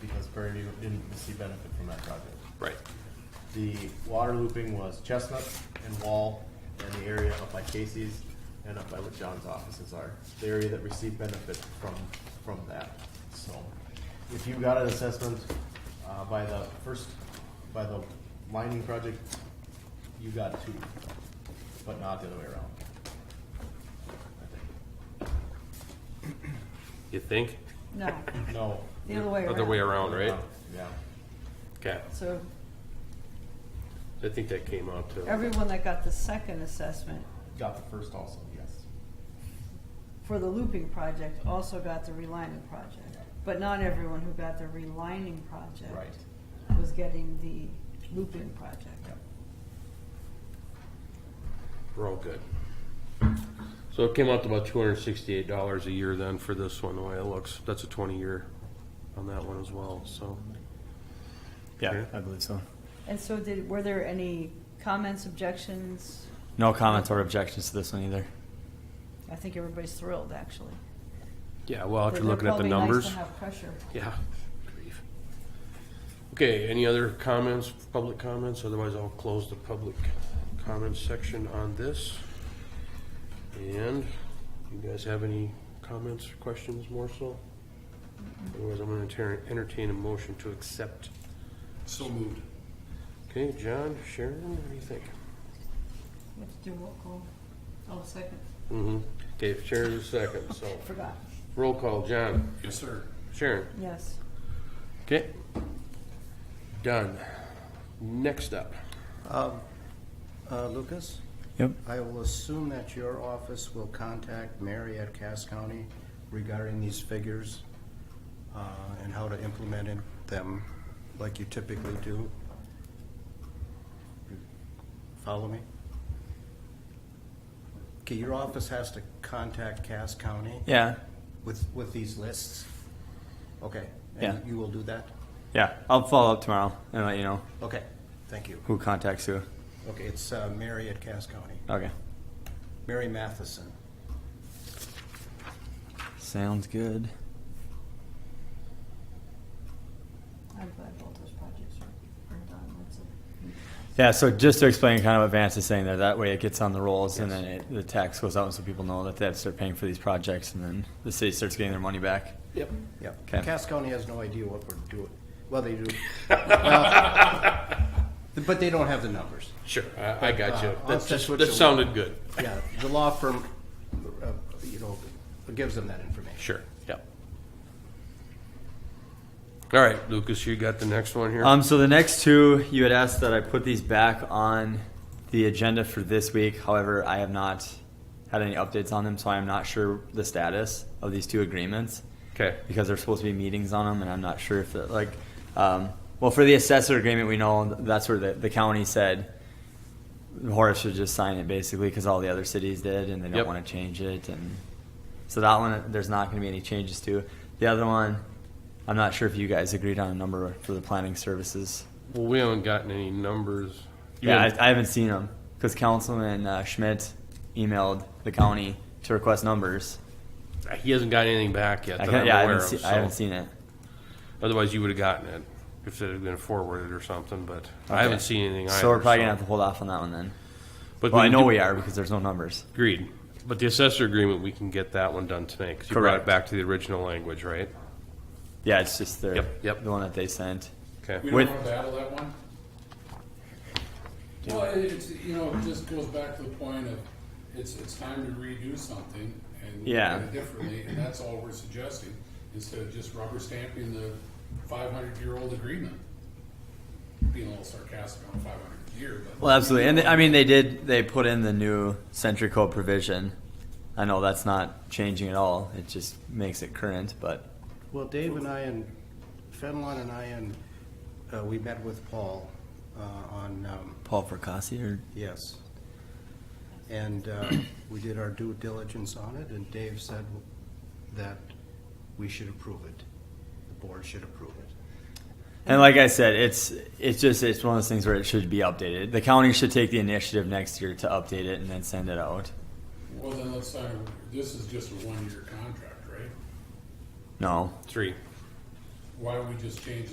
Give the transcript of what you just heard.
because Prairie View didn't see benefit from that project. Right. The water looping was Chestnut and Wall and the area up by Casey's and up by what John's offices are, the area that received benefit from, from that. So if you got an assessment, uh, by the first, by the lining project, you got two, but not the other way around. I You think? No, think. No. the other way around. Other way around, right? Yeah. Okay. So I think that came out to, everyone that got the second assessment Got the first also, yes. for the looping project also got the relining project. But not everyone who got the relining project Right. was getting the looping project. Yep. we're all good. So it came out to about two hundred and sixty-eight dollars a year then for this one, the way it looks. That's a twenty-year on that one as well, so. Yeah, Okay. I believe so. And so did, were there any comments, objections? No comments or objections to this one either. I think everybody's thrilled, actually. Yeah, well, after They're looking at the probably numbers. Nice to have pressure. Yeah. Grief. Okay, any other comments, public comments? Otherwise, I'll close the public comments section on this. And you guys have any comments, or questions more so? Otherwise, I'm gonna enter- entertain a motion to accept. So moved. Okay, John, Sharon, what do you think? We have to do roll call. Oh, second, Mm-hmm. Okay, Sharon's a second, so forgot. roll call, John, Yes, sir. Sharon. Yes. Okay. Done. Next up. Uh, Lucas, Yep. I will assume that your office will contact Mary at Cass County regarding these figures uh, and how to implement in- them like you typically do. Follow me? Okay, your office has to contact Cass County Yeah. with, with these lists? Okay. Yeah. And you will do that? Yeah. I'll follow up tomorrow and let you know Okay, thank you. who contacts who. Okay, it's uh, Mary at Cass County. Okay. Mary Matheson. Sounds good. I'm glad both those projects are are done. That's a- Yeah, so just to explain kind of what Vance is saying there, that way it gets on the rolls and then it, the tax goes out so people know that they have to start paying for these projects and then the city starts getting their money back. Yep. Yep. Okay. Cass County has no idea what we're doing. Well, they do. Well, But they don't have the numbers. Sure, I, I got you. Uh, I'll That's, just switch that over. sounded good. Yeah, the law firm, uh, you know, gives them that information. Sure, yep. All right, Lucas, you got the next one here? Um, so the next two, you had asked that I put these back on the agenda for this week. However, I have not had any updates on them, so I am not sure the status of these two agreements Okay, because there's supposed to be meetings on them, and I'm not sure if that, like, um, well, for the assessor agreement, we know that's where the, the county said Horace should just sign it basically because all the other cities did, and they don't Yep. want to change it, and so that one there's not going to be any changes to. The other one, I'm not sure if you guys agreed on a number for the planning services. well, we haven't gotten any numbers. You Yeah, haven't- I, I haven't seen them because Councilman uh, Schmidt emailed the county to request numbers. He hasn't got anything back yet I, that can't, I'm yeah, I aware haven't, of, see, I haven't so- seen it. Otherwise, you would've gotten it if it had been forwarded or something, but I haven't Okay. seen anything either. So we're probably gonna have to hold off on that one then. But Well, I know do- we are because there's no numbers. Agreed. But the assessor agreement, we can get that one done tonight, because you brought it Correct. back to the original language, right? Yeah, it's just the Yep, yep. the one that they sent. Okay, We With- don't want to battle that one? Well, it- it's, you know, it just goes back to the point of, it's, it's time to redo something and look Yeah. at it differently, and that's all we're suggesting, instead of just rubber stamping the five hundred year old agreement. Being a little sarcastic on five hundred year, but. Well, absolutely, and they, I mean they did. They put in the new century code provision. I know that's not changing at all. It just makes it current, but Well, Dave and I and Fenelon and I and, uh, we met with Paul uh, on, um, Paul Percassi or yes. And uh, we did our due diligence on it, and Dave said that we should approve it. The board should approve it. And like I said, it's it's just it's one of those things where it should be updated. The county should take the initiative next year to update it and then send it out. Well, then let's sign, a- this is just a one year contract, right? No, three. why don't we just change the